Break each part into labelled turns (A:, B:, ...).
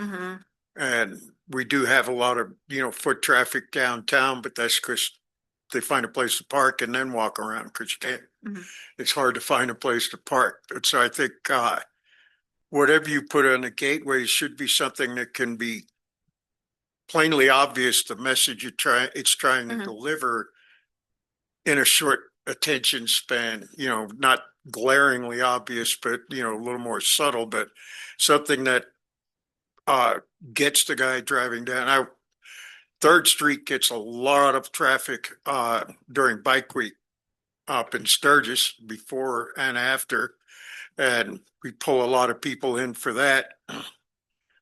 A: Mm-hmm,
B: hmm
C: And we do have a lot of, you know, foot traffic downtown, but that's because they find a place to park and then walk around because you can't,
B: Mhm.
C: it's hard to find a place to park. And so I think, uh, whatever you put on the gateway should be something that can be plainly obvious, the message you try, it's trying to
B: Mhm.
C: deliver in a short attention span, you know, not glaringly obvious, but, you know, a little more subtle, but something that uh, gets the guy driving down. I, Third Street gets a lot of traffic, uh, during Bike Week up in Sturgis before and after. And we pull a lot of people in for that.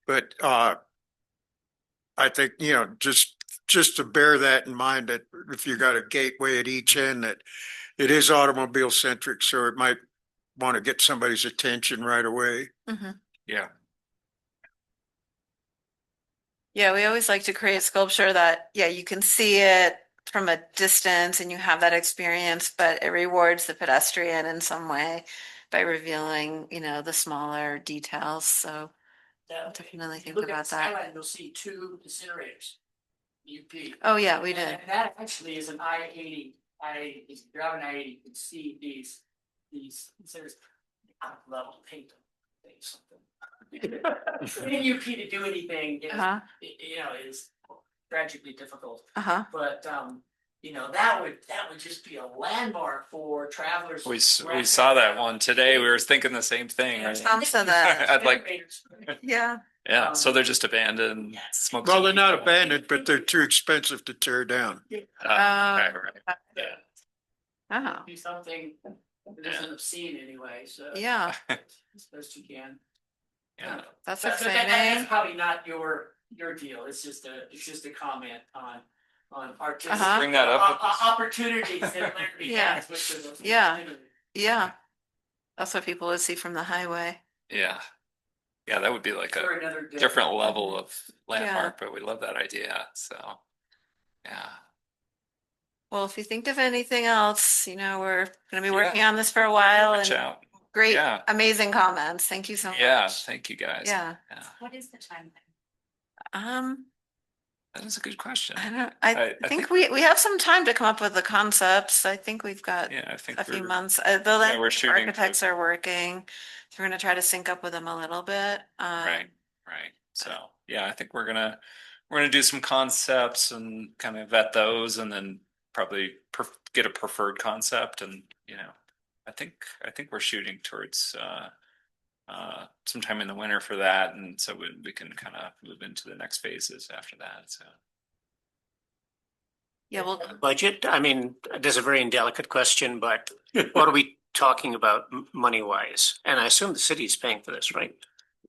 C: But, uh, I think, you know, just, just to bear that in mind that if you got a gateway at each end that it is automobile centric, so it might want to get somebody's attention right away.
A: mm-hmm.
B: hmm
C: Yeah.
B: Yeah, we always like to create sculpture that, yeah, you can see it from a distance and you have that experience, but it rewards the pedestrian in some way by revealing, you know, the smaller details. So
A: Now, if you
B: definitely think
A: look at
B: about
A: the
B: that.
A: skyline, You'll see two incinerators. UP.
B: Oh, yeah, we
A: And
B: did.
A: that actually is an I eighty, I, if you drive an I eighty, you can see these, these, there's out of level paint. them, they something. Getting UP to do anything, is-
B: Uh-huh,
A: you know, is tragically difficult,
B: uh-huh.
A: but, um, you know, that would, that would just be a landmark for travelers.
D: We, s- we saw that one today. We were thinking the same thing,
A: Yeah,
D: right?
B: Tom said that.
A: Uh,
D: I'd like,
B: Yeah,
D: yeah, so they're just abandoned, smoke.
C: Well, they're not abandoned, but they're too expensive to tear down.
B: Uh,
D: Right, right.
A: Yeah.
B: oh,
A: do something that isn't obscene anyway, so.
B: yeah,
A: As best you can.
D: Yeah.
B: that's
A: But- but that- that-
B: exciting.
A: That's probably not your, your deal, it's just a, it's just a comment on, on artistic.
B: Uh-huh.
D: Bring that up.
A: o- o- Opportunities that Larry
B: Yeah.
A: has, which is. a-
B: Yeah. Yeah. That's what people would see from the highway.
D: Yeah. Yeah, that would be like
A: For
D: a
A: another day.
D: different level of landmark, but we love that idea, so. Yeah,
B: Well, if you think of anything else, you know, we're gonna be
D: Yeah.
B: working on this for a while
D: watch
B: and
D: out.
B: great,
D: Yeah.
B: amazing comments. Thank you so much.
D: Yeah, thank you guys.
B: Yeah,
D: Yeah.
A: What is the timeline?
B: um,
D: That is a good question.
B: I don't, I
D: I
B: think
D: think-
B: we, we have some time to come up with the concepts. I think we've got
D: Yeah, I think
B: a few
D: we're-
B: months, uh, though
D: yeah,
B: that
D: we're shooting. for-
B: architects are working. So we're gonna try to sync up with them a little bit.
D: Right,
B: um,
D: right. So, yeah, I think we're gonna, we're gonna do some concepts and kind of vet those and then probably perf- get a preferred concept and, you know, I think, I think we're shooting towards uh uh sometime in the winter for that. And so we, we can kind of move into the next phases after that. So,
B: Yeah, well,
E: budget? I mean, this is a very indelicate question, but what are we talking about money wise? And I assume the city is paying for this, right?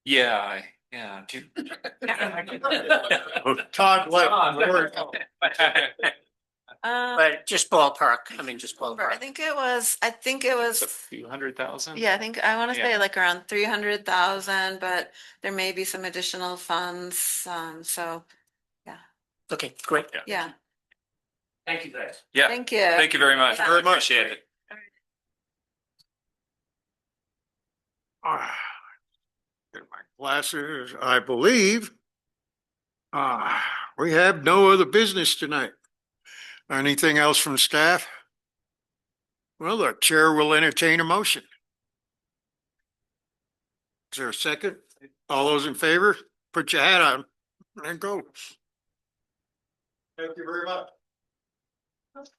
D: yeah, I- yeah. do you-
C: Todd left.
B: uh,
E: But just ballpark, I mean, just
B: I
E: ballpark.
B: think it was, I think it
D: It's a
B: was
D: few hundred thousand?
B: Yeah, I think I want to
D: Yeah.
B: say like around three hundred thousand, but there may be some additional funds, um, so,
E: Okay, great.
B: yeah,
A: Thank you guys.
D: Yeah,
B: thank you.
D: thank you very much.
B: Very
C: much.
D: Appreciate it.
C: Ah, Get my glasses, I believe. Ah, we have no other business tonight. Anything else from staff? Well, the chair will entertain a motion. Is there a second? All those in favor, put your hat on and go. Thank you very much.